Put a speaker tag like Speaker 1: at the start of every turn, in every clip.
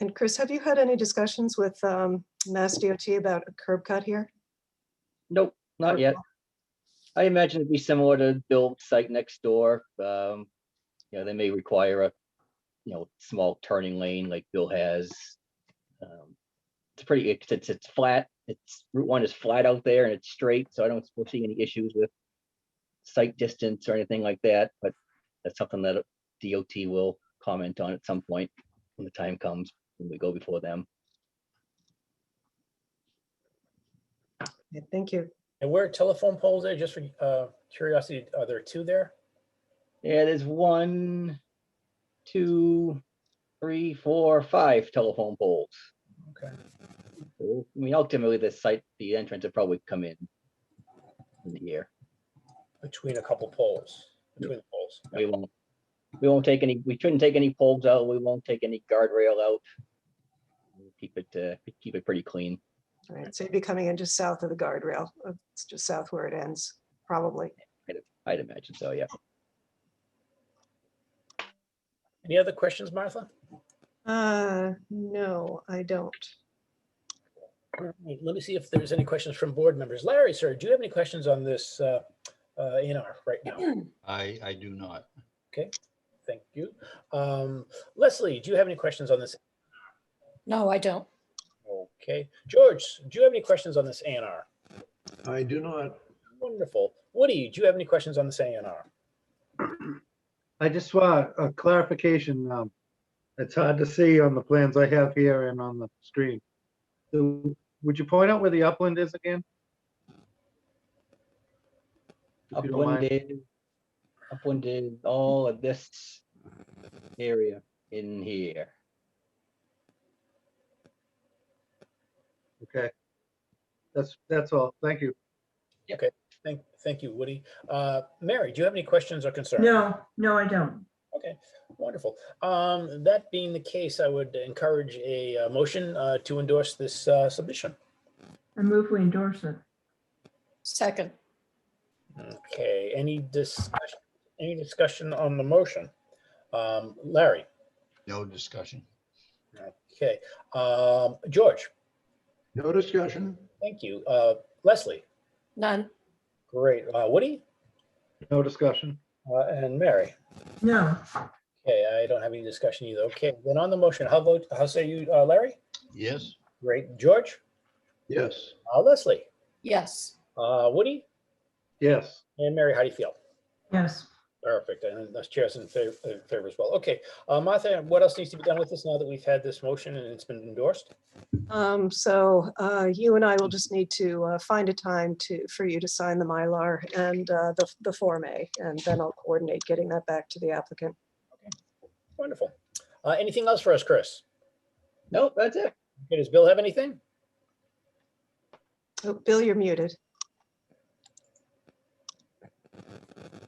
Speaker 1: And Chris, have you had any discussions with um, Mass DOT about a curb cut here?
Speaker 2: Nope, not
Speaker 1: Or-
Speaker 2: yet. I imagine it'd be similar to Bill site next door. Um, you know, they may require a, you know, small turning lane like Bill has. Um, It's pretty, it's, it's, it's flat, it's, Route One is flat out there and it's straight, so I don't foresee any issues with site distance or anything like that, but that's something that DOT will comment on at some point when the time comes, when we go before them.
Speaker 1: Yeah, Thank you.
Speaker 3: And where are telephone poles there, just for uh, curiosity, are there two there?
Speaker 2: Yeah, there's one, two, three, four, five telephone poles.
Speaker 3: Okay.
Speaker 2: So, I mean, ultimately, the site, the entrance will probably come in in the year.
Speaker 3: Between a couple poles, between the poles.
Speaker 2: We won't, we won't take any, we shouldn't take any poles out. We won't take any guardrail out. We'll Keep it, uh, keep it pretty clean.
Speaker 1: All right, so you'd be coming in just south of the guardrail, uh, it's just south where it ends, probably.
Speaker 2: I'd imagine so, yeah.
Speaker 3: Any other questions, Martha?
Speaker 1: Uh, no, I don't.
Speaker 3: All right, Let me see if there's any questions from board members. Larry, sir, do you have any questions on this uh, uh, A and R right now?
Speaker 4: I, I do not.
Speaker 3: Thank you. Um, Leslie, do you have any questions on this?
Speaker 5: No, I don't.
Speaker 3: Okay. George, do you have any questions on this A and R?
Speaker 6: I do not.
Speaker 3: Wonderful. Woody, do you have any questions on this A and R?
Speaker 7: I just want a clarification. um, It's hard to see on the plans I have here and on the screen. So, Would you point out where the upland is again? If you don't mind.
Speaker 2: Upwinded, upwinded, all of this area in here.
Speaker 7: Okay. That's, that's all. Thank you.
Speaker 3: Thank, thank you, Woody. Uh, Mary, do you have any questions or concerns?
Speaker 8: No, no, I don't.
Speaker 3: Okay, wonderful. Um, that being the case, I would encourage a uh, motion uh, to endorse this uh, submission.
Speaker 8: I move we endorse it.
Speaker 5: Second,
Speaker 3: Okay, any discussion, any discussion on the motion? Um, Larry,
Speaker 4: No discussion.
Speaker 3: okay, um, George,
Speaker 6: No discussion.
Speaker 3: thank you. Uh, Leslie,
Speaker 5: none,
Speaker 3: great. Uh, Woody
Speaker 7: No discussion.
Speaker 3: uh, and Mary.
Speaker 8: No,
Speaker 3: Okay, I don't have any discussion either. Okay, then on the motion, how vote, how say you, uh, Larry?
Speaker 4: Yes,
Speaker 3: Great. George,
Speaker 6: Yes.
Speaker 3: uh, Leslie,
Speaker 5: yes,
Speaker 3: uh, Woody
Speaker 7: Yes.
Speaker 3: and Mary, how do you feel?
Speaker 8: yes.
Speaker 3: Perfect, and that's chair's in favor, in favor as well. Okay, uh, Martha, what else needs to be done with this now that we've had this motion and it's been endorsed?
Speaker 1: Um, so, uh, you and I will just need to, uh, find a time to, for you to sign the Mylar and, uh, the, the Form A, and then I'll coordinate getting that back to the applicant.
Speaker 3: Wonderful. Uh, anything else for us, Chris?
Speaker 2: Nope, that's it.
Speaker 3: Okay, Does Bill have anything?
Speaker 1: Oh, Bill, you're muted.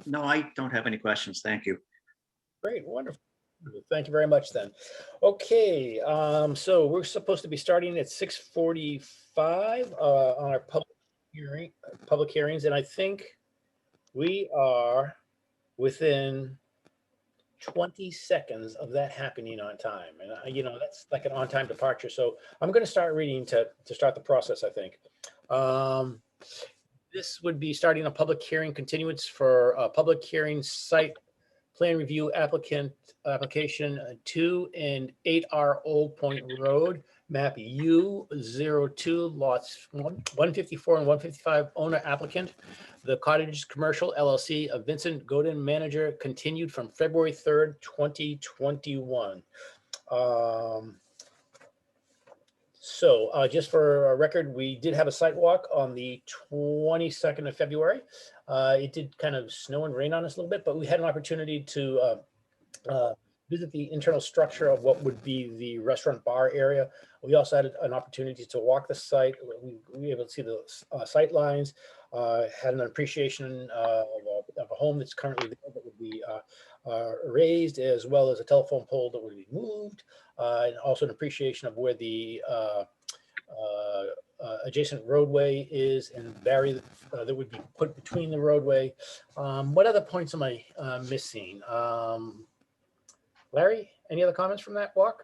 Speaker 9: No, I don't have any questions. Thank you.
Speaker 3: Great, wonderful. Thank you very much then. Okay, um, so we're supposed to be starting at six forty-five, uh, on our public hearing, uh, public hearings, and I think we are within twenty seconds of that happening on time. And, uh, you know, that's like an on-time departure, so I'm gonna start reading to, to start the process, I think. Um, this would be starting a public hearing continuance for a public hearing site plan review applicant, application uh, two and eight R Old Point Road, map U 2 lots one, one fifty-four and one fifty-five, owner applicant. The Cottage Commercial LLC of Vincent Godin, manager, continued from February third, twenty twenty-one. Um, So uh, just for a record, we did have a site walk on the twenty-second of February. Uh, it did kind of snow and rain on us a little bit, but we had an opportunity to uh, uh, visit the internal structure of what would be the restaurant bar area. We also had an opportunity to walk the site. We, we were able to see the uh, sight lines, uh, had an appreciation uh, of, a, of a home that's currently there that would be uh, uh, raised, as well as a telephone pole that would be moved, uh, and also an appreciation of where the uh, uh, uh, adjacent roadway is and barrier uh, that would be put between the roadway. Um, what other points am I uh, missing? Um, Larry, any other comments from that walk?